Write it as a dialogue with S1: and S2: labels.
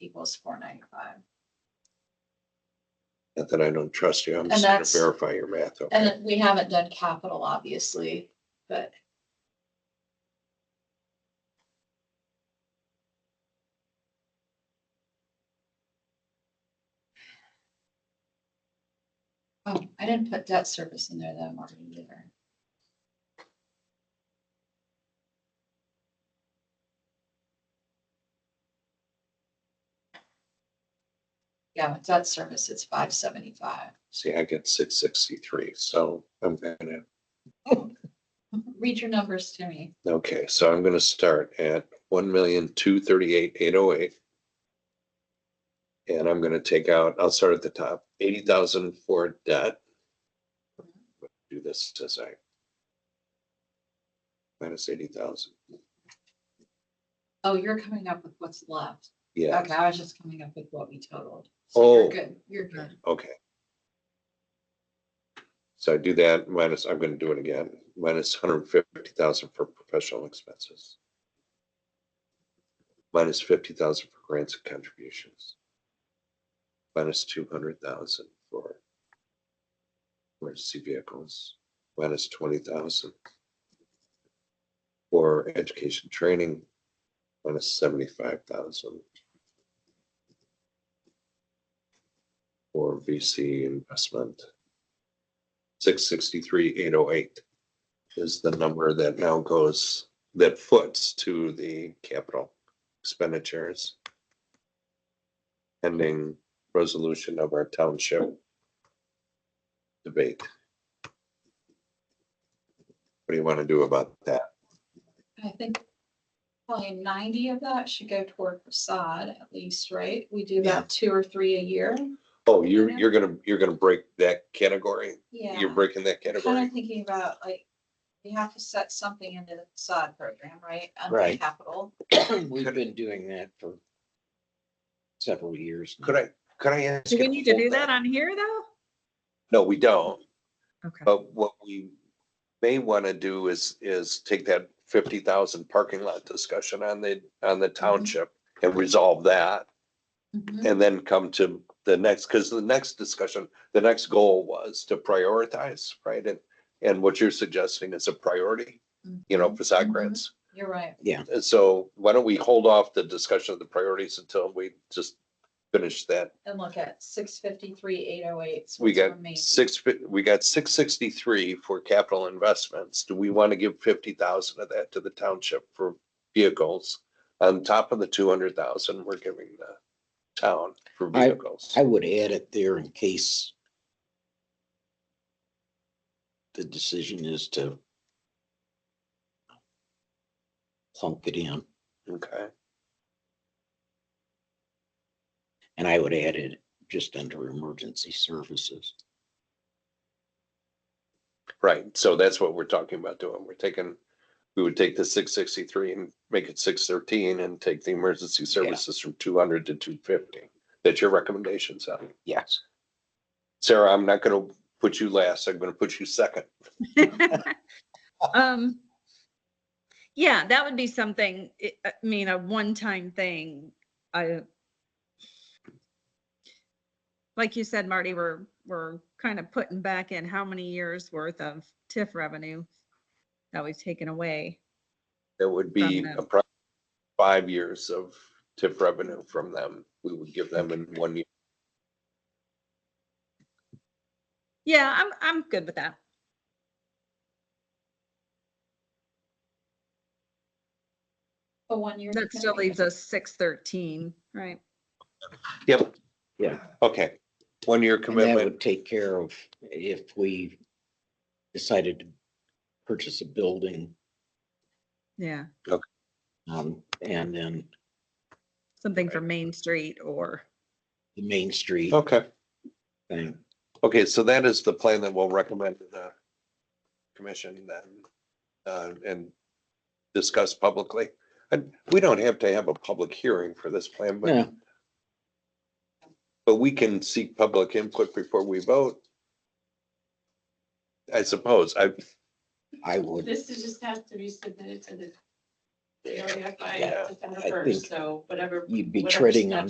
S1: equals four ninety-five.
S2: Not that I don't trust you, I'm
S1: And
S2: just gonna
S1: that's-
S2: verify your math,
S1: And
S2: okay?
S1: then we haven't done capital, obviously, but. Oh, I didn't put debt service in there that I'm already there. Yeah, with debt service, it's five seventy-five.
S2: See, I get six sixty-three, so I'm gonna,
S1: Read your numbers to me.
S2: okay, so I'm gonna start at one million, two thirty-eight, eight oh eight. And I'm gonna take out, I'll start at the top, eighty thousand for debt. Do this as I. Minus eighty thousand,
S1: Oh, you're coming up with what's left.
S2: yeah,
S1: Okay, I was just coming up with what we totaled. So you're
S2: Oh.
S1: Good, you're good.
S2: okay. So I do that minus, I'm gonna do it again, minus hundred fifty thousand for professional expenses. Minus fifty thousand for grants and contributions. Minus two hundred thousand for emergency vehicles, minus twenty thousand for education training, minus seventy-five thousand for VC investment. Six sixty-three, eight oh eight is the number that now goes, that foots to the capital expenditures. Pending resolution of our township debate. What do you want to do about that?
S1: I think probably ninety of that should go toward facade at least, right? We do
S2: Yeah.
S1: about two or three a year.
S2: Oh, you're, you're gonna, you're gonna break that category?
S1: Yeah.
S2: You're breaking that
S1: Kind
S2: category?
S1: of thinking about like, we have to set something into the facade program, right? Under
S3: Right.
S1: Capital.
S3: We've been doing that for several years. now.
S2: Could I, could I ask?
S4: Do
S2: you
S4: we need to
S2: hold
S4: do that on here though?
S2: No, we don't.
S4: Okay.
S2: But what we may want to do is, is take that fifty thousand parking lot discussion on the, on the township and resolve that.
S1: Mhm.
S2: And then come to the next, because the next discussion, the next goal was to prioritize, right? And, and what you're suggesting is a priority, you know, facade
S1: Mhm.
S2: grants.
S1: You're right.
S2: And so why don't we hold off the discussion of the priorities until we just finish that?
S1: And look at six fifty-three, eight oh eight.
S2: We got six, fi- we got six sixty-three for capital investments. Do we want to give fifty thousand of that to the township for vehicles? On top of the two hundred thousand we're giving the town for
S3: I-
S2: vehicles.
S3: I would add it there in case the decision is to plunk it in,
S2: Okay,
S3: and I would add it just under emergency services.
S2: right. So that's what we're talking about doing. We're taking, we would take the six sixty-three and make it six thirteen and take the emergency services from two hundred to two fifty. That's your recommendation, Sally.
S3: Yes.
S2: Sarah, I'm not gonna put you last. I'm gonna put you second.
S4: Um, yeah, that would be something, I I mean, a one-time thing. I, like you said, Marty, we're, we're kind of putting back in how many years worth of TIF revenue that we've taken away.
S2: That would be
S4: them.
S2: approximately five years of TIF revenue from them. We would give them in one year.
S4: Yeah, I'm, I'm good with that.
S1: A one-year.
S4: That still
S1: commitment.
S4: leaves us six thirteen, right?
S2: Yep,
S3: Yeah.
S2: okay. One-year
S3: And that
S2: commitment.
S3: would take care of if we decided to purchase a building,
S4: Yeah,
S3: um, and then
S4: something for Main Street or,
S3: the Main Street
S2: Okay,
S3: thing.
S2: okay, so that is the plan that we'll recommend to the commission then, uh, and discuss publicly. And we don't have to have a public hearing for this plan, but,
S3: Yeah,
S2: but we can seek public input before we vote. I suppose. I,
S3: I would,
S5: This is just has to be submitted to the area by
S3: Yeah,
S5: December
S3: I think
S5: first, so whatever
S3: you'd be
S5: Whatever
S3: treading on